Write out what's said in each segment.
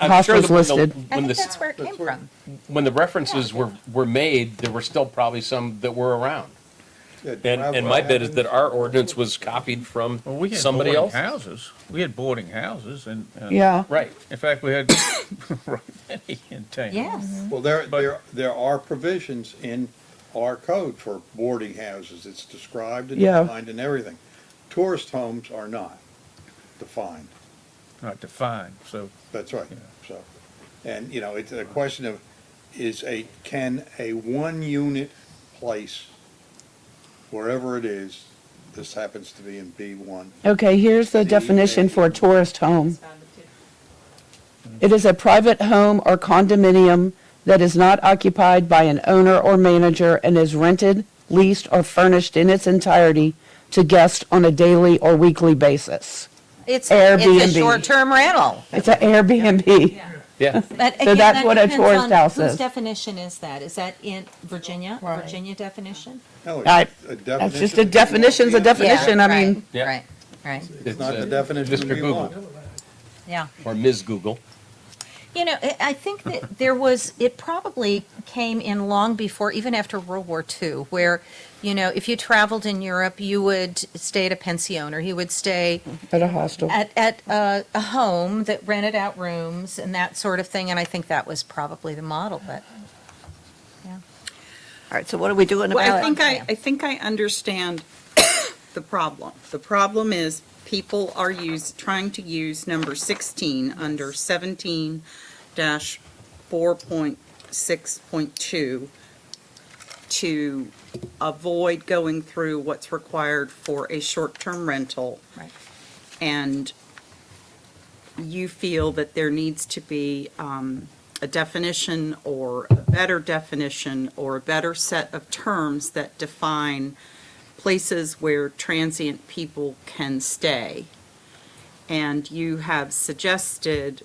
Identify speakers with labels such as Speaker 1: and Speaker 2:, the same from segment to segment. Speaker 1: I'm
Speaker 2: Haas
Speaker 1: sure
Speaker 2: was
Speaker 1: that when the-
Speaker 2: listed.
Speaker 1: When
Speaker 3: I think
Speaker 1: the,
Speaker 3: that's where it came from.
Speaker 1: when the references were, were made, there were still probably some that were around. And, and my bet is that our ordinance was copied from
Speaker 4: Well, we had
Speaker 1: somebody
Speaker 4: boarding
Speaker 1: else.
Speaker 4: houses. We had boarding houses and. and-
Speaker 2: Yeah.
Speaker 1: Right.
Speaker 4: In fact, we had right many in town.
Speaker 3: Yes.
Speaker 5: Well, there,
Speaker 4: But-
Speaker 5: there, there are provisions in our code for boarding houses. It's described and
Speaker 2: Yeah.
Speaker 5: defined and everything. Tourist homes are not defined.
Speaker 4: Not defined, so,
Speaker 5: That's right, so. And, you know, it's a question of, is a, can a one-unit place, wherever it is, this happens to be in B one,
Speaker 2: Okay, here's the
Speaker 5: See,
Speaker 2: definition
Speaker 5: and-
Speaker 2: for a tourist home. It is a private home or condominium that is not occupied by an owner or manager and is rented, leased, or furnished in its entirety to guests on a daily or weekly basis.
Speaker 3: It's,
Speaker 2: Airbnb.
Speaker 3: it's a short-term rental.
Speaker 2: It's an Airbnb.
Speaker 1: Yeah.
Speaker 6: But
Speaker 2: So that's
Speaker 6: again, that
Speaker 2: what a
Speaker 6: depends
Speaker 2: tourist
Speaker 6: on
Speaker 2: house is.
Speaker 6: Whose definition is that? Is that in Virginia,
Speaker 3: Right.
Speaker 6: Virginia definition?
Speaker 5: no,
Speaker 2: I-
Speaker 5: it's a definition.
Speaker 2: That's just a definition's a definition,
Speaker 3: Yeah,
Speaker 2: I mean,
Speaker 1: Yeah.
Speaker 3: Right, right, right,
Speaker 5: It's not
Speaker 1: uh,
Speaker 5: the definition
Speaker 1: Mr.
Speaker 5: we want.
Speaker 1: Google
Speaker 3: yeah.
Speaker 1: or Ms. Google.
Speaker 6: You know, I- I think that there was, it probably came in long before, even after World War II, where, you know, if you traveled in Europe, you would stay at a pension or you would stay
Speaker 2: at a hostel.
Speaker 6: at, at uh, a home that rented out rooms and that sort of thing. And I think that was probably the model, but
Speaker 3: All right, so what are we doing
Speaker 7: Well, I
Speaker 3: about
Speaker 7: think
Speaker 3: it?
Speaker 7: I, I think I understand the problem. The problem is people are use, trying to use number 16 under 17 dash 4.6.2 to avoid going through what's required for a short-term rental.
Speaker 6: Right.
Speaker 7: And you feel that there needs to be um, a definition or a better definition or a better set of terms that define places where transient people can stay. And you have suggested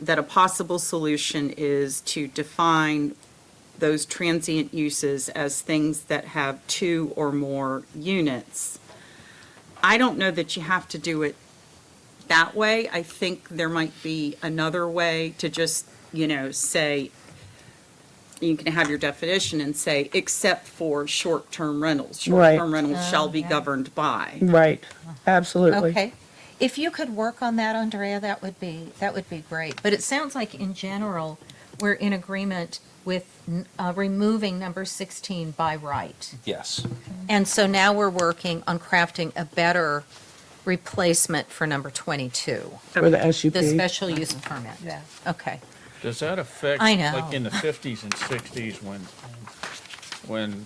Speaker 7: that a possible solution is to define those transient uses as things that have two or more units. I don't know that you have to do it that way. I think there might be another way to just, you know, say, you can have your definition and say, except for short-term rentals.
Speaker 2: Right.
Speaker 7: Short-term rentals shall be
Speaker 6: yeah.
Speaker 7: governed by.
Speaker 2: Right, absolutely.
Speaker 6: Okay. If you could work on that, Andrea, that would be, that would be great. But it sounds like in general, we're in agreement with uh, removing number 16 by right.
Speaker 1: Yes.
Speaker 6: And so now we're working on crafting a better replacement for number 22,
Speaker 2: For the SUP.
Speaker 6: the special use permit.
Speaker 3: Yeah.
Speaker 6: Okay.
Speaker 4: does that affect?
Speaker 6: I know.
Speaker 4: Like in the fifties and sixties when, when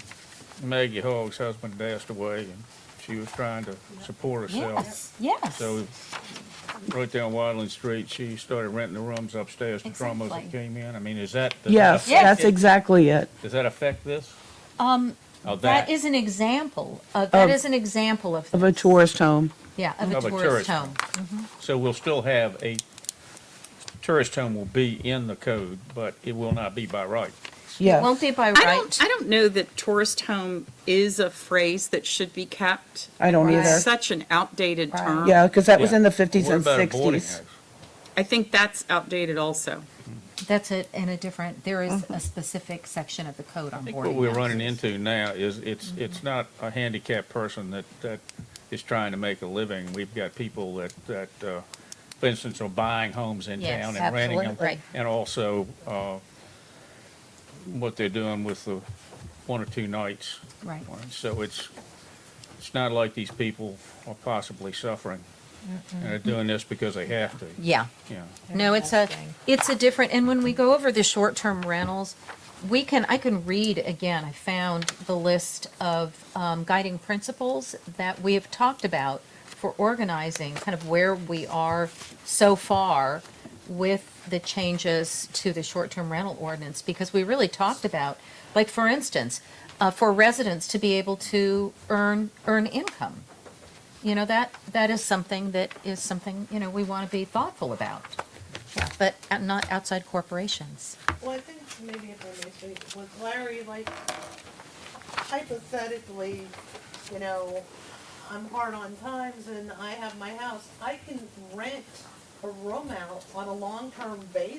Speaker 4: Maggie Hogg's husband passed away and she was trying to support herself.
Speaker 6: Yes, yes.
Speaker 4: So right down Wadley Street, she started renting the rooms upstairs to drummers that
Speaker 6: Exactly.
Speaker 4: came in. I mean, is that? does that
Speaker 2: Yes,
Speaker 4: affect
Speaker 2: that's
Speaker 4: it?
Speaker 2: exactly it.
Speaker 4: Does that affect this?
Speaker 6: Um,
Speaker 4: Oh,
Speaker 6: That
Speaker 4: that,
Speaker 6: is an example, of- that
Speaker 2: Of-
Speaker 6: is an example of.
Speaker 2: Of a
Speaker 6: this.
Speaker 2: tourist home.
Speaker 6: Yeah, of a
Speaker 4: Of a
Speaker 6: tourist
Speaker 4: tourist
Speaker 6: home.
Speaker 4: so we'll still have a, tourist home will be in the code, but it will not be by right.
Speaker 6: It
Speaker 2: Yes.
Speaker 6: won't be by
Speaker 7: I
Speaker 6: right.
Speaker 7: don't, I don't know that tourist home is a phrase that should be kept.
Speaker 2: I don't
Speaker 6: Right.
Speaker 2: either.
Speaker 7: It's such an outdated
Speaker 6: Right.
Speaker 7: term.
Speaker 2: Yeah, because that was
Speaker 4: Yeah.
Speaker 2: in the 50s
Speaker 4: What
Speaker 2: and
Speaker 4: about a boarding
Speaker 2: 60s.
Speaker 4: house?
Speaker 7: I think that's outdated also.
Speaker 6: That's it, in a different, there is
Speaker 2: Mm-hmm.
Speaker 6: a specific section of the Mm-hmm. code on
Speaker 4: I think
Speaker 6: boarding
Speaker 4: what we're
Speaker 6: houses.
Speaker 4: running into now is it's, it's not a handicapped person that, that is trying to make a living. We've got people that, that, uh, for instance, are buying homes in
Speaker 6: Yes,
Speaker 4: town and renting them.
Speaker 6: absolutely. Right.
Speaker 4: And also, uh, what they're doing with the one or two nights.
Speaker 6: Right.
Speaker 4: So it's, it's not like these people are possibly suffering. And they're doing this because they have to,
Speaker 6: Yeah,
Speaker 4: you know.
Speaker 6: no, it's a, it's a different, and when we go over the short-term rentals, we can, I can read again, I found the list of um, guiding principles that we have talked about for organizing, kind of where we are so far with the changes to the short-term rental ordinance, because we really talked about, like, for instance, uh, for residents to be able to earn, earn income. You know, that, that is something that is something, you know, we want to be thoughtful about, but not outside corporations.
Speaker 8: Well, I think maybe if I may speak, was Larry like hypothetically, you know, I'm hard on times and I have my house, I can rent a room out on a long-term basis.